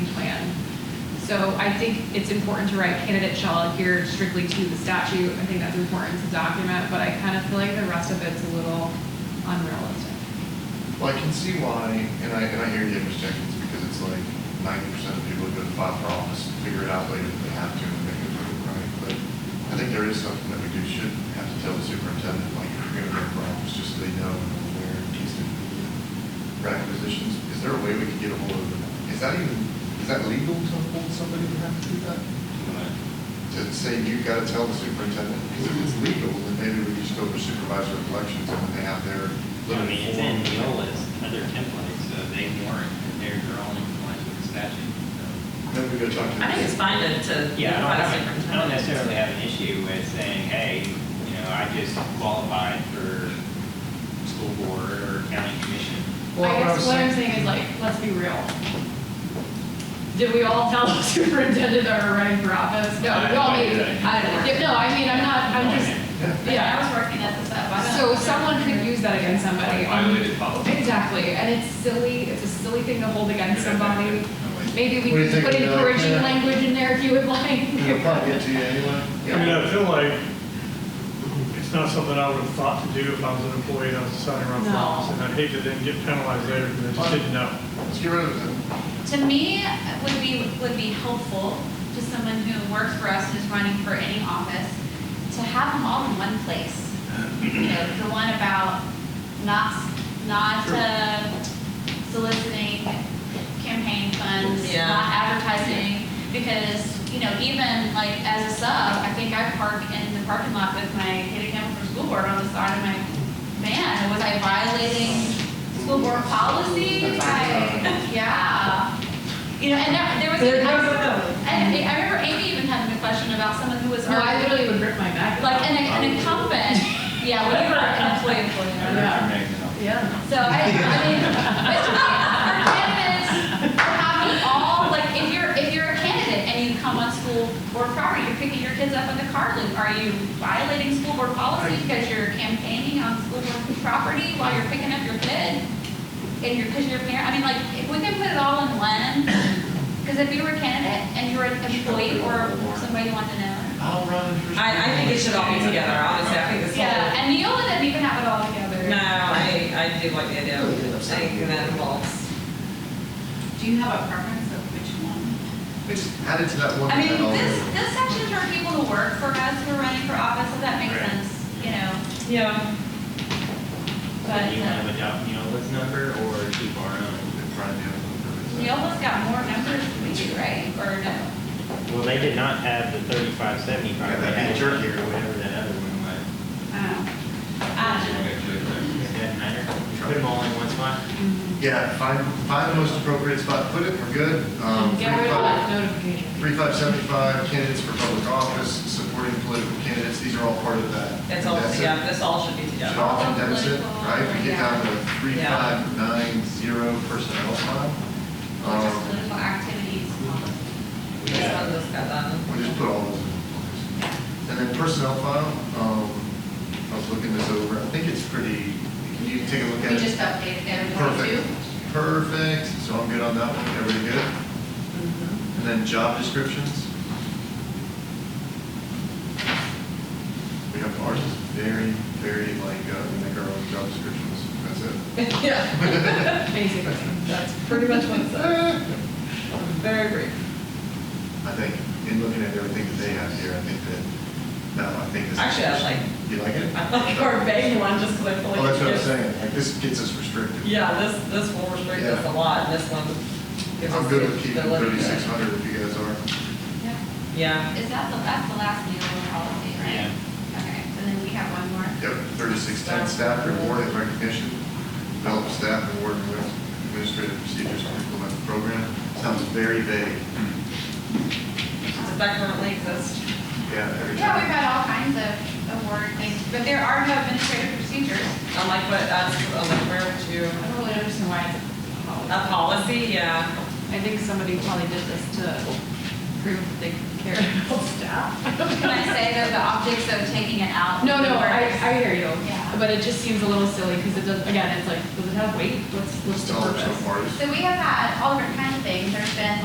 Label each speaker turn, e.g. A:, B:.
A: So I think it's important to write candidate shall adhere strictly to the statute. I think that's important to document, but I kind of feel like the rest of it's a little unrealistic.
B: Well, I can see why, and I, and I hear the objections, because it's like ninety percent of people who go to file for office figure it out later if they have to, and they can do it right. But I think there is something that we do, should have to tell the superintendent, like, if you're gonna go for office, just so they know where these to be requisitions. Is there a way we could get a hold of them? Is that even, is that legal to hold somebody who has to do that? To say, you've gotta tell the superintendent, because if it's legal, then maybe we just go for supervisor of elections, and when they have their
C: I mean,
B: limited
C: it's
B: form.
C: in Neola's other template, so they warrant, that they're their own compliance with the statute.
B: Then we go talk to.
D: I think it's fine to,
C: so.
D: to.
C: Yeah, I
D: notify the
C: don't, I don't
D: superintendent.
C: necessarily have an issue with saying, hey, you know, I just qualified for school board or county commission.
B: Well,
A: I
B: what I
A: guess
B: was
A: what I'm
B: saying-
A: saying is like, let's be real. Did we all tell the superintendent that we're running for office? No,
C: I-
A: we all
C: I
A: made,
C: did.
A: I, yeah, no, I mean, I'm not, I'm just,
B: Yeah.
D: But I was working at this up. I don't-
A: so someone could use that against somebody.
E: Violated policy.
A: Exactly, and it's silly, it's a silly thing to hold against somebody. Maybe we
B: What do you
A: could
B: think
A: put
B: of that?
A: encouraging
B: Yeah.
A: language in there if you would
B: It'll
A: like.
B: probably get to you anyway.
F: I mean, I feel like it's not something I would have thought to do if I was an employee and I was deciding around for
A: No.
F: office. And I'd hate to then get penalized later because I just didn't know.
B: Let's get rid of it.
D: To me, it would be, would be helpful to someone who works for us, who's running for any office, to have them all in one place. You know, The one about not, not uh, soliciting campaign funds,
G: Yeah.
D: not advertising, because, you know, even like as a sub, I think I park in the parking lot with my kid account for school board on the side of my van. Was I violating school board policy by, yeah. You know, and there, there was.
G: There goes another.
D: And I remember Amy even having a question about someone who was.
A: No, I
D: already-
A: literally would rip my back.
D: like an, an incumbent, yeah, whatever, an employee, employee.
C: I
A: Yeah.
C: recommend that.
A: Yeah.
D: So I, I mean, but to me, for candidates, to have them all, like, if you're, if you're a candidate and you come on school board property, you're picking your kids up at the car loop, are you violating school board policy because you're campaigning on school board property while you're picking up your kid? And you're, because you're parent, I mean, like, if we can put it all in one, because if you were a candidate and you're an employee or somebody you want to know.
B: I'll run for.
G: I, I think it should all be together, honestly, I think this whole.
D: Yeah, and Neola didn't even have it all together.
G: No, I, I do like the idea of saying that involves.
H: Do you have a preference of which one?
B: We just add it to that one.
D: I mean,
B: that I'll-
D: this, this section's for people who work for us, who are running for office, if that makes
C: Right.
D: sense, you know,
G: Yeah.
D: but
C: Do you want
D: uh,
C: to adopt Neola's number or keep our own?
B: Probably the other one.
D: Neola's got more numbers than we do, right? Or no?
C: Well, they did not have the thirty-five
B: Yeah,
C: seventy-five, they
B: that'd be
C: had
B: jerky.
C: jerky or whatever that other one was.
H: Oh,
D: Uh,
C: Does that matter? Put them all in one spot?
B: Yeah, find, find the most appropriate spot, put it, we're good. Um,
A: Get rid of that
B: 35
A: notification.
B: 3575, candidates for public office, supporting political candidates, these are all part of that.
G: It's all,
B: That's it.
G: yeah, this all should be
B: Should
G: together.
B: all condense it,
D: Political,
B: right? We get down to three,
G: Yeah.
B: five, nine, zero personnel file.
D: or just
B: Um,
D: political activities.
G: This one just got done.
B: We'll just put all those in. And then personnel file, um, I was looking this over, I think it's pretty, can you take a look at
H: We
B: it?
H: just updated everyone
B: Perfect,
H: too.
B: perfect, so I'm good on that one, everybody good?
H: Mm-hmm.
B: And then job descriptions? We have ours is very, very like, uh, we make our own job descriptions, that's it.
G: Yeah,
A: Basically,
G: that's pretty much what it said. Very brief.
B: I think, in looking at everything that they have here, I think that, no, I think this.
G: Actually, I like-
B: You like it?
G: I like our vague one just because I feel like.
B: Well, Oh, that's
G: it
B: what I'm
G: gives-
B: saying, like, this gets us restricted.
G: Yeah, this, this will restrict us a lot, and this one gives us.
B: I'm good
G: the-
B: with keeping
G: the liberty.
B: thirty-six hundred if you guys are.
D: Yeah.
G: Yeah,
D: Is that the, that's the last Neola policy, right? Okay, so then we have one more.
B: Yep, thirty-six ten, staff reward and recognition, develop staff reward and administrative procedures to implement the program. Sounds very vague.
G: does that currently exist?
B: Yeah, every
D: Yeah, we've
B: time.
D: had all kinds of award things, but there are no administrative procedures.
G: I like what, that's, I like where
A: I
G: to,
A: don't really understand why it's a policy.
G: a policy, yeah.
A: I think somebody probably did this to prove that they care about staff.
D: Can I say though, the optics of taking it out?
A: No, no, I,
D: works.
A: I hear you.
D: Yeah.
A: But it just seems a little silly because it does, again, it's like, does it have weight? What's, what's the
B: Dollars
A: purpose?
B: so far is-
D: So we have had all different kinds of things. There's been